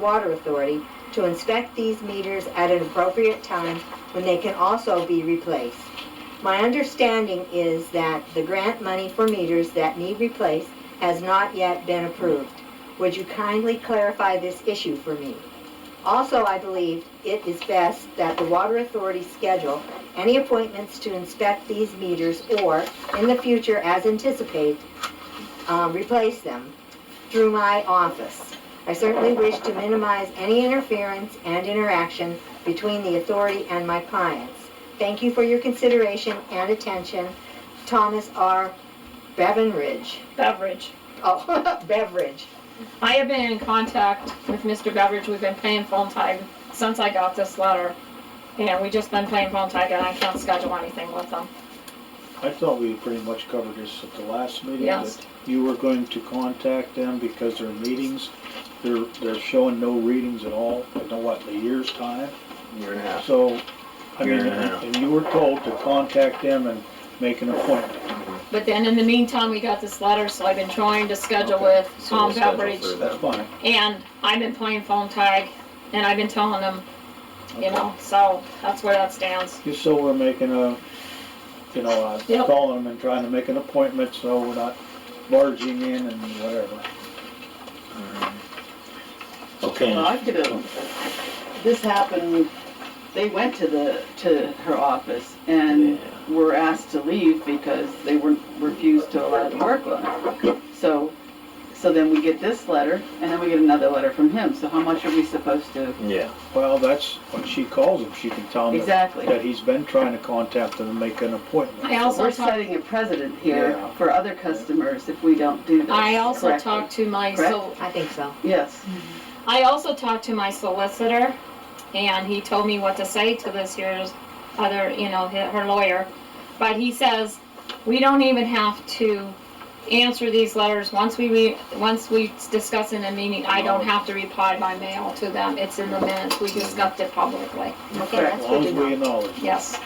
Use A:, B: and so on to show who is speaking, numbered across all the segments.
A: Water Authority to inspect these meters at an appropriate time when they can also be replaced. My understanding is that the grant money for meters that need replaced has not yet been approved. Would you kindly clarify this issue for me? Also, I believe it is best that the Water Authority schedule any appointments to inspect these meters or, in the future, as anticipated, um, replace them through my office. I certainly wish to minimize any interference and interaction between the authority and my clients. Thank you for your consideration and attention. Thomas R. Bevanridge.
B: Beveridge.
A: Oh, Beveridge.
B: I have been in contact with Mr. Beveridge. We've been playing phone tag since I got this letter. And we just been playing phone tag and I can't schedule anything with him.
C: I thought we pretty much covered this at the last meeting.
B: Yes.
C: that You were going to contact them because their meetings, they're, they're showing no readings at all, I know what, in a year's time?
D: Year and a half.
C: So, I
D: Year
C: mean,
D: and a half.
C: and you were told to contact them and make an appointment.
B: But then in the meantime, we got this letter, so I've been trying to schedule
D: Okay,
B: with
D: so
B: Tom
D: we'll schedule
B: Beveridge.
D: through-
C: That's fine.
B: And I've been playing phone tag and I've been telling him, you know, so that's where that stands.
C: Just so we're making a, you know, uh,
B: Yep.
C: calling them and trying to make an appointment so we're not barging in and whatever.
E: Well,
D: Okay,
E: I could have, this happened, they went to the, to her office and were asked to leave because they were, refused to allow them to work with them. So, so then we get this letter, and then we get another letter from him, so how much are we supposed to?
D: yeah,
C: Well, that's, when she calls him, she can tell them that-
E: Exactly.
C: that he's been trying to contact them and make an appointment.
B: I
E: We're
B: also talked,
E: setting a precedent here
C: Yeah.
E: for other customers if we don't do this
B: I also
E: correctly.
B: talked to my,
E: Correct.
B: so
A: I think so.
E: Yes,
B: I also talked to my solicitor, and he told me what to say to this here's other, you know, her her lawyer. But he says, we don't even have to answer these letters. Once we, re- once we discuss in a meeting, I don't have to reply by mail to them. It's in the minutes. We discussed it publicly.
A: Okay,
E: Right,
A: that's good
C: As long
A: to
C: as we
A: know.
C: acknowledge. it.
B: Yes.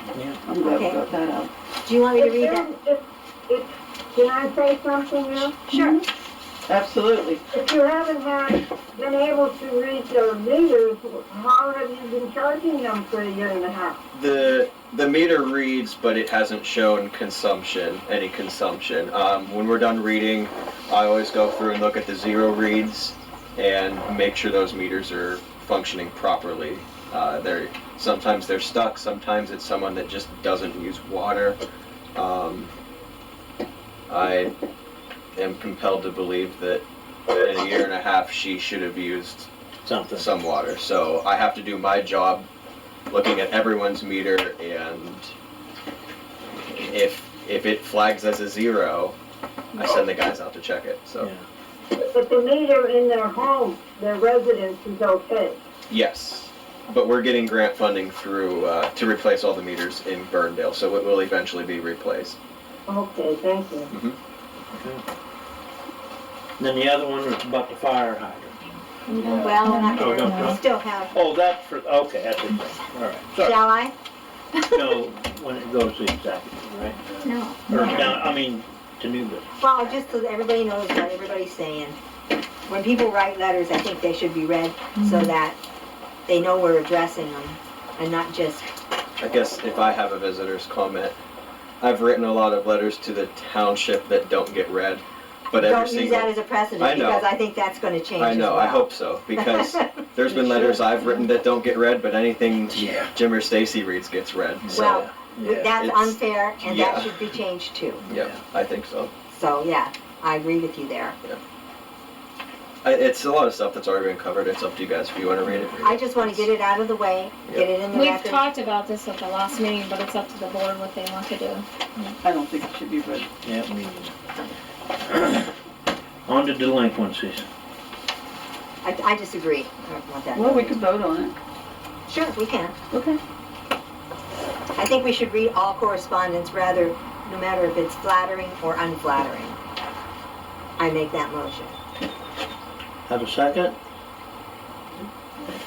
E: I'm glad we
A: Okay.
E: got that out.
A: Do you want me to
F: If
A: read
F: there-
A: that?
F: if- if- Can I say something now?
A: Sure.
E: Absolutely.
F: If you haven't had, been able to read the meters, how have you been charging them for a year and a half?
D: the, the meter reads, but it hasn't shown consumption, any consumption. Um, when we're done reading, I always go through and look at the zero reads and make sure those meters are functioning properly. Uh, they're, sometimes they're stuck, sometimes it's someone that just doesn't use water. Um, I am compelled to believe that in a year and a half, she should have used
G: something.
D: some water. So I have to do my job looking at everyone's meter and if if it flags as a zero, I send the guys out to check it. So
G: Yeah.
F: But the meter in their home, their residence is okay.
D: yes. But we're getting grant funding through uh, to replace all the meters in Burndale, so it will eventually be replaced.
F: Okay, thank you.
G: And Then the other one was about the fire hydrant.
A: Well, we're not
G: Oh, No, no,
A: gonna-
G: no.
A: we still have,
G: Oh, that's for, okay, that's a thing, all right. Sorry,
A: shall I?
G: no, when it goes to executive, right?
B: No.
G: Or now, I mean, to new business.
A: Well, just so that everybody knows what everybody's saying. When people write letters, I think they should be read so that they know we're addressing them and not just,
D: I guess if I have a visitor's comment, I've written a lot of letters to the township that don't get read, but every
A: don't use
D: single
A: that as a
D: I
A: precedent
D: know.
A: because I think that's gonna change
D: I
A: as
D: know. I
A: well.
D: hope so because there's been letters I've written that don't get read, but anything
G: Yeah.
D: Jim or Stacy reads gets read. So,
A: Well,
G: Yeah.
A: that's
D: It's-
A: unfair and
D: yeah.
A: that should be changed too.
D: yeah, I think so.
A: So, yeah, I agree with you there.
D: I, it's a lot of stuff that's already been covered. It's up to you guys if you want to read it. read
A: I
D: it.
A: just wanna get it out of the way, get it in the
B: We've
A: record.
B: talked about this at the last meeting, but it's up to the board what they want to do.
E: I don't think it should be read.
G: Yeah, me neither. On to delinquencies.
A: I, I disagree. I don't want that.
E: Well, we could vote on it.
A: Sure, we can.
E: Okay.
A: I think we should read all correspondence rather, no matter if it's flattering or unflattering. I make that motion.
G: Have a second?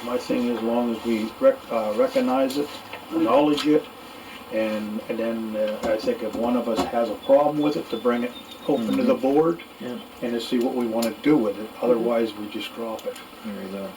C: My thing is, as long as we rec- uh, recognize it, acknowledge it, and, and then uh, I think if one of us has a problem with it, to bring it open to the board
G: Mm-hmm. Yeah.
C: Mm-hmm. and to see what we want to do with it, otherwise we just drop it.
G: There you go.